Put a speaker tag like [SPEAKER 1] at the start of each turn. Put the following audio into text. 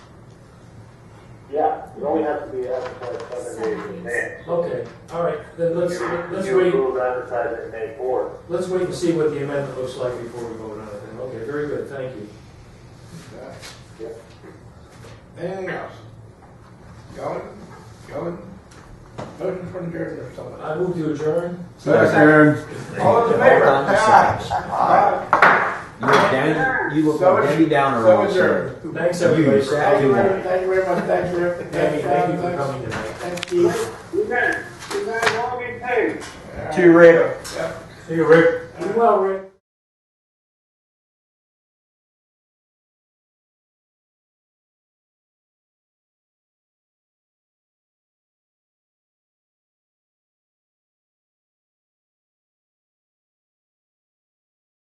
[SPEAKER 1] It only has to be advertised seven days in advance.
[SPEAKER 2] Okay, all right, then let's, let's
[SPEAKER 1] You
[SPEAKER 2] wait,
[SPEAKER 1] approve advertising May fourth.
[SPEAKER 2] let's wait and see what the amendment looks like before we vote on it then. Okay, very good, thank you.
[SPEAKER 3] Okay.
[SPEAKER 1] Yep.
[SPEAKER 3] Anything else? Going, going, motion for adjournment or something.
[SPEAKER 2] I move to adjourn.
[SPEAKER 4] Second.
[SPEAKER 3] All in favor?
[SPEAKER 5] Hold on a
[SPEAKER 3] Aye. Aye.
[SPEAKER 5] You look down, you look
[SPEAKER 3] So is-
[SPEAKER 5] Debbie Downer
[SPEAKER 3] so
[SPEAKER 5] on
[SPEAKER 3] is
[SPEAKER 5] the
[SPEAKER 3] there-
[SPEAKER 5] show.
[SPEAKER 2] Thanks, everybody.
[SPEAKER 5] You said-
[SPEAKER 3] Thank you very, thank you very much, thank you.
[SPEAKER 2] Debbie, thank you for coming tonight.
[SPEAKER 3] Thank you.
[SPEAKER 1] You guys, you guys all be paid.
[SPEAKER 3] See you, Rick. Yep.
[SPEAKER 2] See you, Rick. Be well, Rick.